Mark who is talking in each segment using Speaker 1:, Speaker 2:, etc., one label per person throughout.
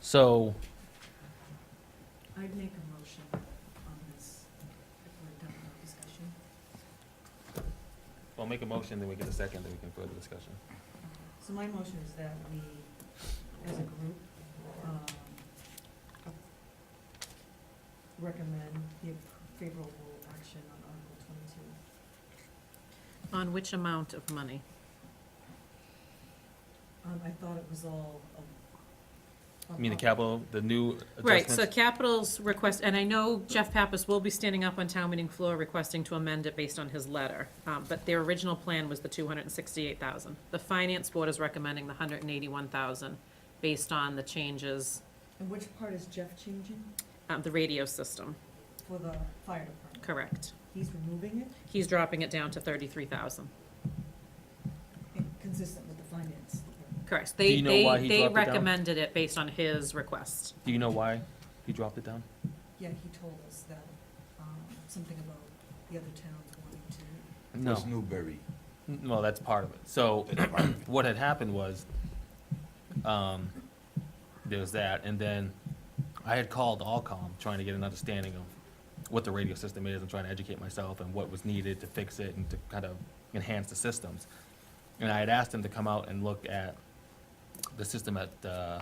Speaker 1: So,
Speaker 2: I'd make a motion on this if we're done with discussion.
Speaker 3: Well, make a motion, then we get a second, then we can further discussion.
Speaker 2: So my motion is that we, as a group, um, recommend the favorable action on Article twenty-two.
Speaker 4: On which amount of money?
Speaker 2: Um, I thought it was all. um,
Speaker 3: You mean the capital, the new
Speaker 4: Right, so
Speaker 3: adjustments?
Speaker 4: capital's request, and I know Jeff Pappas will be standing up on town meeting floor requesting to amend it based on his letter, um, but their original plan was the two hundred and sixty-eight thousand. The finance board is recommending the hundred and eighty-one thousand based on the changes,
Speaker 2: And which part is Jeff changing
Speaker 4: um, the radio system,
Speaker 2: for the fire department?
Speaker 4: correct?
Speaker 2: He's removing it,
Speaker 4: He's dropping it down to thirty-three thousand,
Speaker 2: and consistent with the finance department.
Speaker 4: correct?
Speaker 3: Do
Speaker 4: They,
Speaker 3: you know why
Speaker 4: they,
Speaker 3: he
Speaker 4: they
Speaker 3: dropped it down?
Speaker 4: recommended it based on his request.
Speaker 3: Do you know why he dropped it down?
Speaker 2: Yeah, he told us that, um, something about the other towns wanting to.
Speaker 3: No.
Speaker 5: It's Newbury.
Speaker 3: N- Well, that's part of it. So what had happened was, um, there was that, and then I had called Allcom trying to get an understanding of what the radio system is and trying to educate myself and what was needed to fix it and to kind of enhance the systems. And I had asked them to come out and look at the system at uh,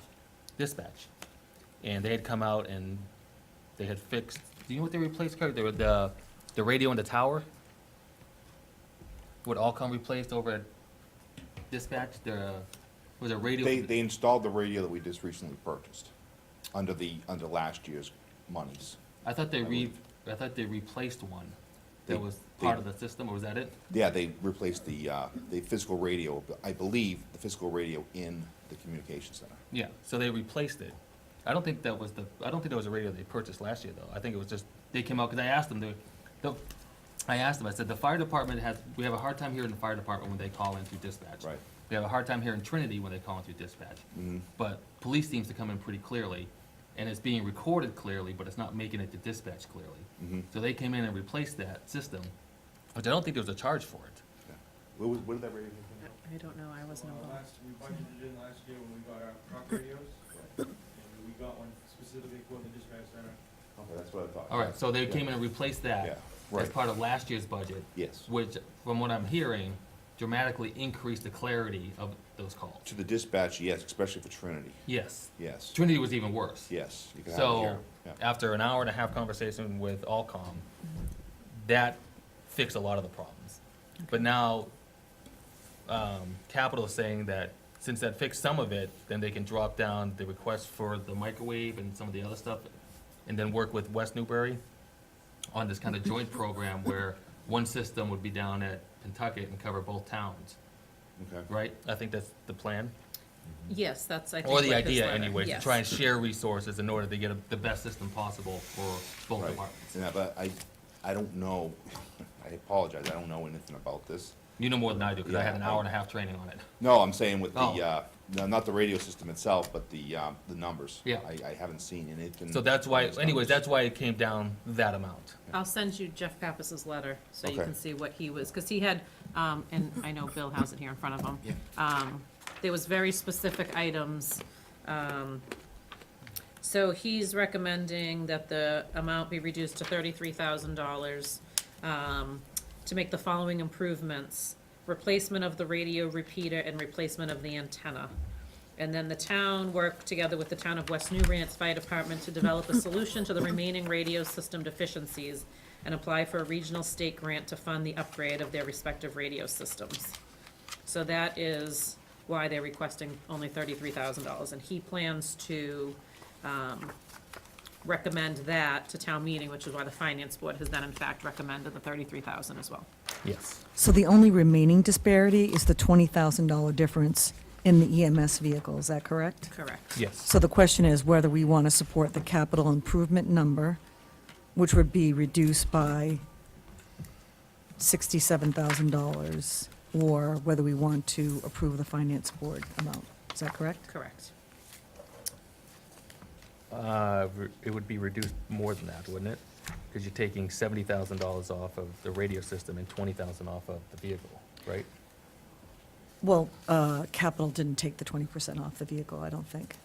Speaker 3: dispatch. And they had come out and they had fixed, do you know what they replaced, Kurt? They were the, the radio in the tower? Would all come replaced over at dispatch, the, was it radio?
Speaker 5: They, they installed the radio that we just recently purchased, under the, under last year's monies.
Speaker 3: I thought they
Speaker 5: I
Speaker 3: re, I thought they replaced one that
Speaker 5: They-
Speaker 3: was
Speaker 5: they-
Speaker 3: part of the system, or was that it?
Speaker 5: Yeah, they replaced the, uh, the physical radio, I believe, the physical radio in the communication center.
Speaker 3: Yeah, so they replaced it. I don't think that was the, I don't think that was a radio they purchased last year, though. I think it was just, they came out, because I asked them, they- the, I asked them, I said, the fire department has, we have a hard time here in the fire department when they call in through dispatch.
Speaker 5: Right.
Speaker 3: We have a hard time here in Trinity when they call in through dispatch.
Speaker 5: Mhm.
Speaker 3: But police seems to come in pretty clearly, and it's being recorded clearly, but it's not making it to dispatch clearly.
Speaker 5: Mhm.
Speaker 3: So they came in and replaced that system, which I don't think there was a charge for it.
Speaker 5: Yeah. What was, what did that radio?
Speaker 4: I I don't know, I wasn't
Speaker 6: Uh,
Speaker 4: involved.
Speaker 6: last- We budgeted in last year when we got our truck radios, and we got one specifically for the dispatch center.
Speaker 5: Okay, that's what I thought.
Speaker 3: All right, so they came in and replaced
Speaker 5: Yeah,
Speaker 3: that as
Speaker 5: right,
Speaker 3: part of last year's budget,
Speaker 5: yes.
Speaker 3: which, from what I'm hearing, dramatically increased the clarity of those calls.
Speaker 5: To the dispatch, yes, especially for Trinity,
Speaker 3: Yes,
Speaker 5: yes,
Speaker 3: Trinity was even worse.
Speaker 5: yes. you can have it
Speaker 3: So,
Speaker 5: here. Yeah.
Speaker 3: after an hour and a half conversation with Allcom, that fixed a lot of the problems. But now, um, Capital is saying that since that fixed some of it, then they can drop down the request for the microwave and some of the other stuff, and then work with West Newbury on this kind of joint program where one system would be down at Pentucket and cover both towns,
Speaker 5: Okay,
Speaker 3: right? I think that's the plan.
Speaker 4: Yes, that's, I think.
Speaker 3: Or the
Speaker 4: what his
Speaker 3: idea
Speaker 4: letter-
Speaker 3: anyways, to
Speaker 4: yes.
Speaker 3: try and share resources in order to get a- the best system possible for both
Speaker 5: Right.
Speaker 3: departments.
Speaker 5: yeah, but I, I don't know, I apologize, I don't know anything about this.
Speaker 3: You know more than I do, because I had an
Speaker 5: Yeah.
Speaker 3: hour and a half training on it.
Speaker 5: No, I'm saying with the,
Speaker 3: Oh.
Speaker 5: uh, no, not the radio system itself, but the, um, the numbers.
Speaker 3: Yeah.
Speaker 5: I, I haven't seen anything.
Speaker 3: So that's why,
Speaker 5: on those
Speaker 3: anyways,
Speaker 5: numbers.
Speaker 3: that's why it came down that amount.
Speaker 4: I'll send you Jeff Pappas's letter, so you
Speaker 5: Okay.
Speaker 4: can see what he was, because he had, um, and I know Bill has it here in front of him.
Speaker 5: Yeah.
Speaker 4: Um, there was very specific items, um, so he's recommending that the amount be reduced to thirty-three thousand dollars, um, to make the following improvements. Replacement of the radio repeater and replacement of the antenna. And then the town worked together with the town of West Newbury and its fire department to develop a solution to the remaining radio system deficiencies and apply for a regional state grant to fund the upgrade of their respective radio systems. So that is why they're requesting only thirty-three thousand dollars, and he plans to, um, recommend that to town meeting, which is why the finance board has then in fact recommended the thirty-three thousand as well.
Speaker 3: Yes.
Speaker 7: So the only remaining disparity is the $20,000 difference in the EMS vehicle, is that correct?
Speaker 4: Correct.
Speaker 3: Yes.
Speaker 7: So the question is whether we want to support the capital improvement number, which would be reduced by $67,000, or whether we want to approve the finance board amount. Is that correct?
Speaker 4: Correct.
Speaker 3: Uh, re- it would be reduced more than that, wouldn't it? Because you're taking seventy thousand dollars off of the radio system and twenty thousand off of the vehicle, right?
Speaker 7: Well, uh, capital didn't take the 20% off the vehicle, I don't think.